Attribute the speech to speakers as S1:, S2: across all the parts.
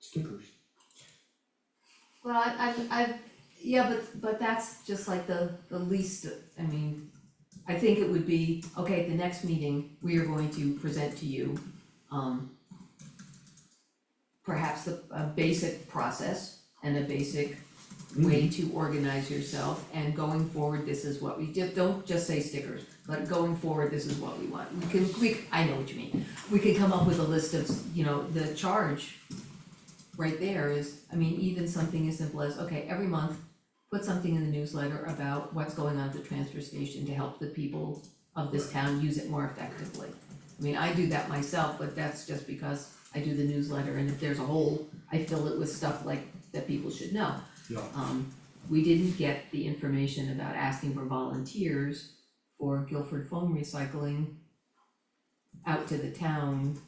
S1: stickers.
S2: Well, I, I've, I've, yeah, but, but that's just like the, the least, I mean, I think it would be, okay, the next meeting, we are going to present to you, um, perhaps a, a basic process and a basic way to organize yourself, and going forward, this is what we, just, don't just say stickers, but going forward, this is what we want, we can, we, I know what you mean, we could come up with a list of, you know, the charge right there is, I mean, even something as simple as, okay, every month, put something in the newsletter about what's going on at the transfer station to help the people of this town use it more effectively. I mean, I do that myself, but that's just because I do the newsletter, and if there's a hole, I fill it with stuff like, that people should know.
S1: Yeah.
S2: Um, we didn't get the information about asking for volunteers for Guilford foam recycling out to the town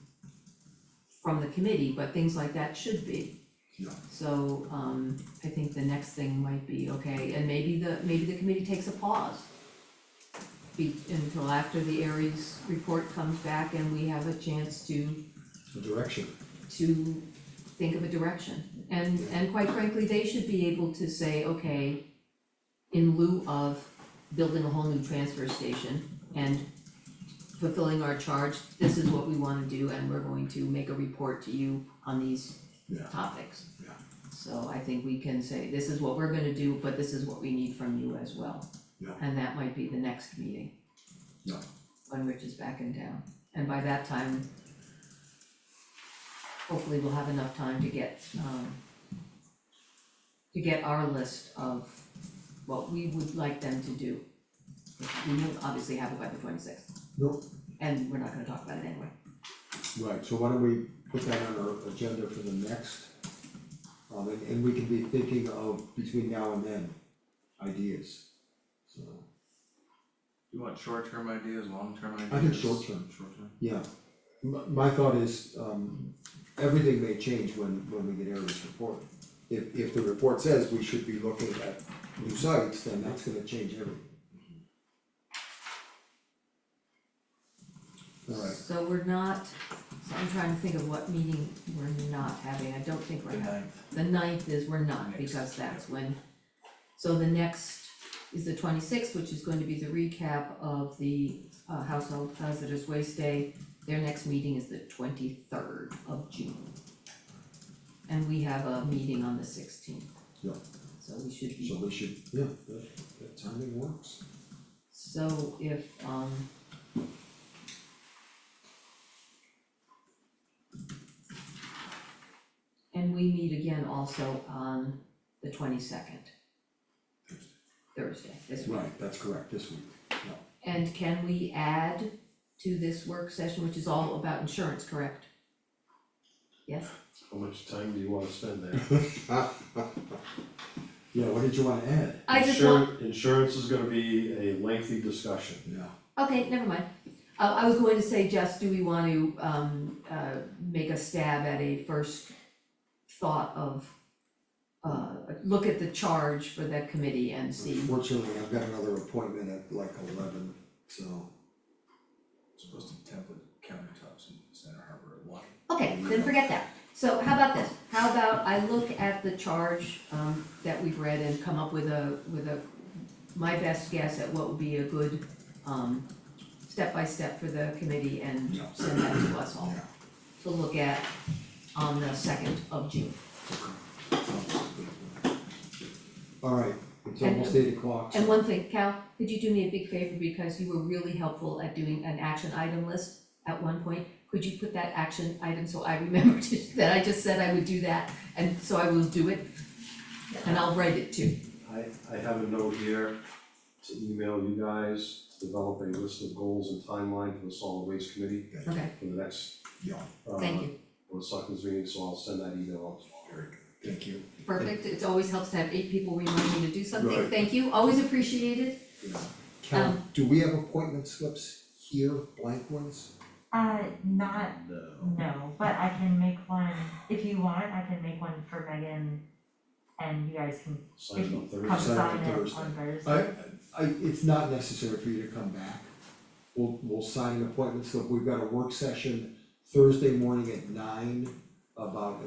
S2: from the committee, but things like that should be.
S1: Yeah.
S2: So, um, I think the next thing might be, okay, and maybe the, maybe the committee takes a pause be, until after the Aries report comes back and we have a chance to
S1: The direction.
S2: to think of a direction. And and quite frankly, they should be able to say, okay, in lieu of building a whole new transfer station and fulfilling our charge, this is what we wanna do and we're going to make a report to you on these
S1: Yeah.
S2: topics.
S1: Yeah.
S2: So I think we can say, this is what we're gonna do, but this is what we need from you as well.
S1: Yeah.
S2: And that might be the next meeting.
S1: Yeah.
S2: When Rich is back in town, and by that time, hopefully we'll have enough time to get, um, to get our list of what we would like them to do. We will obviously have it by the twenty-sixth.
S1: Nope.
S2: And we're not gonna talk about it anyway.
S1: Right, so why don't we put that on our agenda for the next, um, and, and we can be thinking of between now and then, ideas. So,
S3: You want short-term ideas, long-term ideas?
S1: I think short-term.
S3: Short-term.
S1: yeah, my, my thought is, um, everything may change when, when we get Eric's report. If, if the report says we should be looking at new sites, then that's gonna change everything. Alright,
S2: So we're not, so I'm trying to think of what meeting we're not having, I don't think
S3: The
S2: we're having.
S3: ninth,
S2: The ninth is we're not,
S3: Next,
S2: because that's when, so the next is the twenty-sixth, which is going to be the recap of the uh household hazardous waste day. Their next meeting is the twenty-third of June. And we have a meeting on the sixteenth.
S1: Yeah.
S2: So we should be
S1: so we should, yeah, that, that timing works.
S2: So if, um. And we meet again also on the twenty-second.
S1: Thursday.
S2: Thursday, this week.
S1: Right, that's correct, this week, yeah,
S2: And can we add to this work session, which is all about insurance, correct? Yes,
S4: How much time do you wanna spend there?
S1: yeah, what did you wanna add?
S2: I just want,
S4: Insurance, insurance is gonna be a lengthy discussion.
S1: Yeah,
S2: okay, never mind. Uh, I was going to say, Jess, do we want to, um, uh, make a stab at a first thought of, uh, look at the charge for that committee and see,
S1: unfortunately, I've got another appointment at like eleven, so,
S3: supposed to template countertops in Center Harbor at one.
S2: okay, then forget that. So how about this, how about I look at the charge, um, that we've read and come up with a, with a, my best guess at what would be a good, um, step-by-step for the committee and
S1: Yeah.
S2: send that to us all
S1: yeah.
S2: to look at on the second of June.
S1: Alright, it's
S2: And-
S1: almost eight o'clock,
S2: And
S1: so,
S2: one thing, Cal, could you do me a big favor because you were really helpful at doing an action item list at one point? Could you put that action item so I remember to- that I just said I would do that and so I will do it? And I'll write it too.
S4: I, I have a note here to email you guys to develop a list of goals and timeline for the solid waste committee
S2: Okay,
S4: for the next,
S1: yeah,
S4: uh,
S2: thank you.
S4: for the selectmen's meeting, so I'll send that email out.
S1: very good, thank you,
S2: Perfect. It always helps to have eight people remind me to do something.
S1: Right.
S2: Thank you. Always appreciated.
S1: yeah. Cal,
S2: Um,
S1: do we have appointment slips here, blank ones?
S5: Uh, not,
S3: No.
S5: no, but I can make one, if you want, I can make one for Megan. And you guys can
S4: Sign it on
S5: come
S4: Thursday.
S1: Sign it on
S5: sign it on
S1: Thursday.
S5: Thursday.
S1: I, I, it's not necessary for you to come back. We'll, we'll sign an appointment slip, we've got a work session Thursday morning at nine about